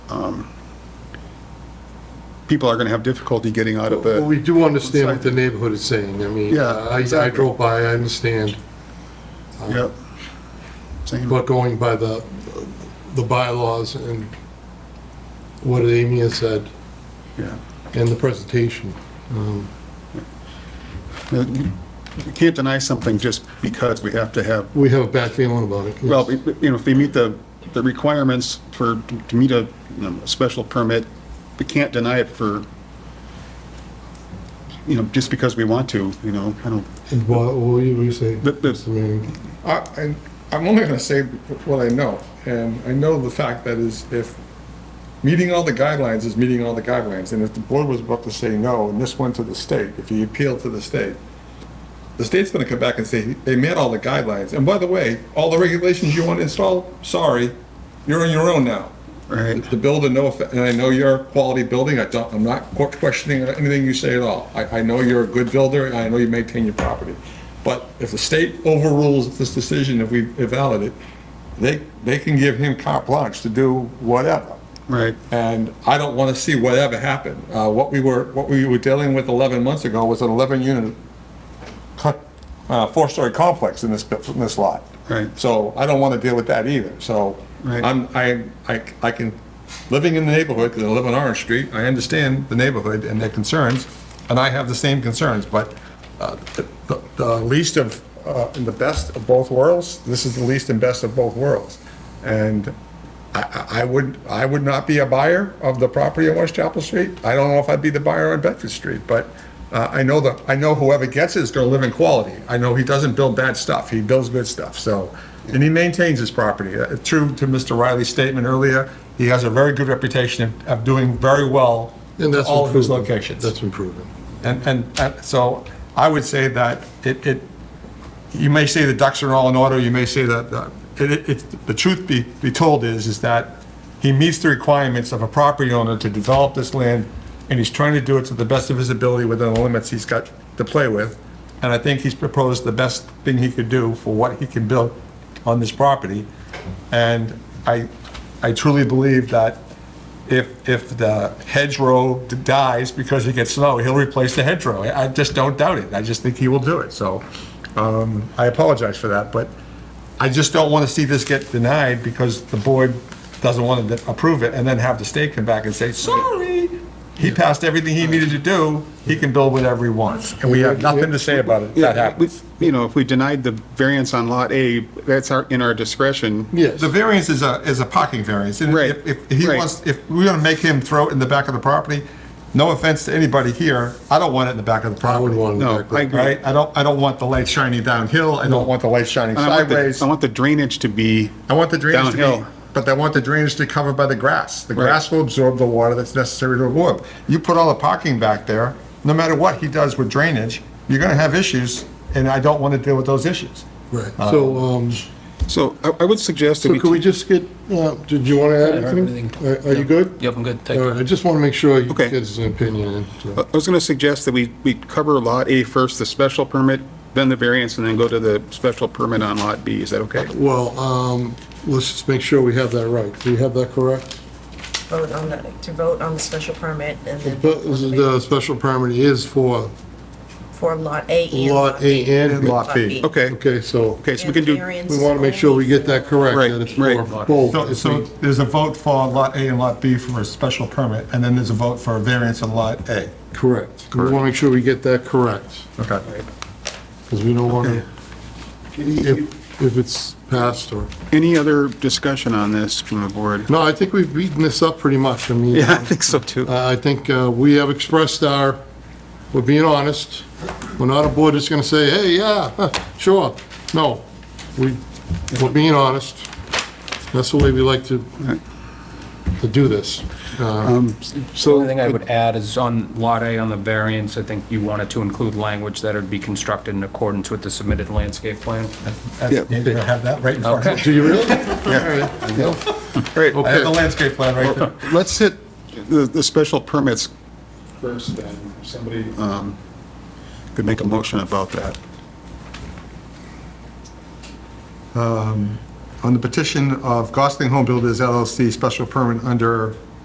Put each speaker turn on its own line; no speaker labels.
um, people are going to have difficulty getting out of
Well,
it.
we do understand what the neighborhood is saying. I mean,
Yeah,
I I
exactly.
drove by, I understand,
Yep. Same.
but going by the, the bylaws and what Amy has said
Yeah.
and the presentation. um,
You know, You can't deny something just because we have to have
We have a bad feeling about it. yes.
Well, we- we- you know, if they meet the, the requirements for, to meet a, you know, a special permit, we can't deny it for, you know, just because we want to, you know, I don't,
And What, what do you say?
But- but-
Mr. Manning?
I, I- I'm only going to say what I know, and I know the fact that is if meeting all the guidelines is meeting all the guidelines, and if the board was about to say no, and this went to the state, if you appeal to the state, the state's going to come back and say, they met all the guidelines, and by the way, all the regulations you want to install, sorry, you're on your own now.
right?
The builder, no, offe- and I know you're a quality building, I don't, I'm not qu- questioning anything you say at all. I, I know you're a good builder, and I know you maintain your property. But if the state overrules this decision, if we invalid it, they, they can give him carte blanche to do whatever.
Right,
And I don't want to see whatever happen. Uh, what we were, what we were dealing with 11 months ago was an 11-unit, uh, four-story complex in this, bu- in this lot.
Right.
So I don't want to deal with that either. So
Right.
I'm, I, I, I can, living in the neighborhood, because I live on Orange Street, I understand the neighborhood and their concerns, and I have the same concerns, but, uh, the- the, the least of, uh, and the best of both worlds, this is the least and best of both worlds. And I, I- I would, I would not be a buyer of the property on West Chapel Street. I don't know if I'd be the buyer on Bedford Street, but uh, I know that, I know whoever gets it is gonna live in quality. I know he doesn't build bad stuff, he builds good stuff, so, and he maintains his property. Uh, True to Mr. Riley's statement earlier, he has a very good reputation of- of doing very well
And
in
that's
all of his
improving.
locations.
That's improving.
And, and uh, so I would say that it, it, you may say the ducks are all in order, you may say that, uh, it, it, it- the truth be, be told is, is that he meets the requirements of a property owner to develop this land, and he's trying to do it to the best of his ability within the limits he's got to play with. And I think he's proposed the best thing he could do for what he can build on this property. And I, I truly believe that if, if the hedgerow dies because it gets snow, he'll replace the hedgerow. I I just don't doubt it. I just think he will do it. So um, I apologize for that, but I just don't want to see this get denied because the board doesn't want to approve it and then have the state come back and say, sorry, he passed everything he needed to do. He can build whatever he wants. And we have nothing to say about it. if That
yeah, we-
happens.
you know, if we denied the variance on Lot A, that's our, in our discretion.
Yes.
The variance is a, is a parking variance. and
Right,
If, if he
right.
wants, if we're gonna make him throw it in the back of the property, no offense to anybody here, I don't want it in the back of the
I would
property.
want it
No,
back.
I agree.
Right? I don't, I don't want the light shining downhill. I don't want the light shining
And I want the-
sideways.
I want the drainage to be,
I want the drainage to be,
Downhill.
but I want the drainage to be covered by the grass. The grass will absorb the water that's necessary to absorb. You put all the parking back there, no matter what he does with drainage, you're gonna have issues, and I don't wanna deal with those issues.
Right.
uh,
So, um,
so I, I would suggest that
so
we.
could we just get, uh, did you want to add
I don't have
anything? Are are you good?
Yep, I'm good, thank
All
you.
right, I just want to make sure you
Okay.
get an opinion. in, so.
I was going to suggest that we, we cover Lot A first, the special permit, then the variance, and then go to the special permit on Lot B. Is that okay?
Well, um, let's just make sure we have that right. Do you have that correct?
vote on the, to vote on the special permit and then
But this is The special permit is for
for lot A and lot
Lot
B.
A and
Lot B.
Okay,
Okay, so
okay, so we can do,
we want to make sure we get that correct.
Right,
that it's
right.
for both.
So,
If
so
we-
there's a vote for Lot A and Lot B for a special permit, and then there's a vote for a variance on Lot A.
Correct. We want to make sure we get that correct,
Okay.
because we don't want to, if, if it's passed or,
any other discussion on this from the board?
no, I think we've beaten this up pretty much. I mean,
Yeah, I think so too.
I I think uh, we have expressed our, we're being honest. We're not a board that's going to say, hey, yeah, huh, sure. No, we, we're being honest. That's the way we like to, to do this. Uh,
The
So,
only thing I would add is on Lot A on the variance, I think you wanted to include language that would be constructed in accordance with the submitted landscape plan.
That's- you Have that right in front of
Do
you.
you really? All right.
all right,
I have the landscape plan right there.
let's hit the, the special permits.
First, then, somebody.
Um, Could make a motion about that.
On the petition of Gosling Home Builders LLC, special permit under